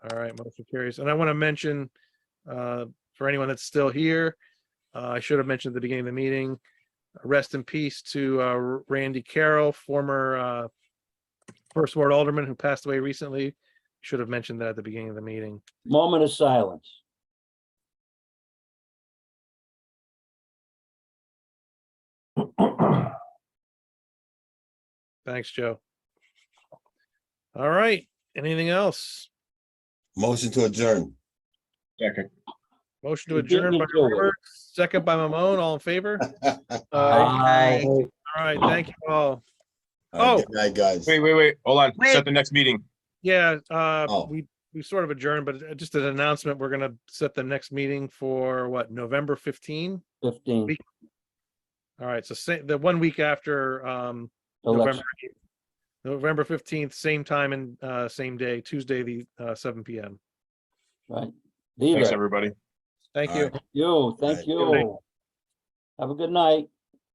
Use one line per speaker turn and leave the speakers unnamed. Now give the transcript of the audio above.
All right, motion carries. And I want to mention, uh, for anyone that's still here, uh, I should have mentioned at the beginning of the meeting, rest in peace to uh, Randy Carroll, former uh, First Ward Alderman who passed away recently. Should have mentioned that at the beginning of the meeting.
Moment of silence.
Thanks, Joe. All right, anything else?
Motion to adjourn.
Second.
Motion to
You beat
adjourn
me
by
to it.
Robert, second by Mamone, all in favor? Uh,
Aye.
All right, thank you all.
Uh, Good night, guys.
Wait, wait, wait, hold on,
Wait.
set the next meeting.
Yeah, uh,
Oh.
we, we sort of adjourned, but uh, just an announcement, we're gonna set the next meeting for what, November fifteen?
Fifteen.
All right, so say, the one week after, um, November,
election.
8th. November fifteenth, same time and, uh, same day, Tuesday, the, uh, seven P M.
Right.
Thanks,
Leave it.
everybody.
Thank
All
you.
right.
You, thank
Right.
you. Have a good night.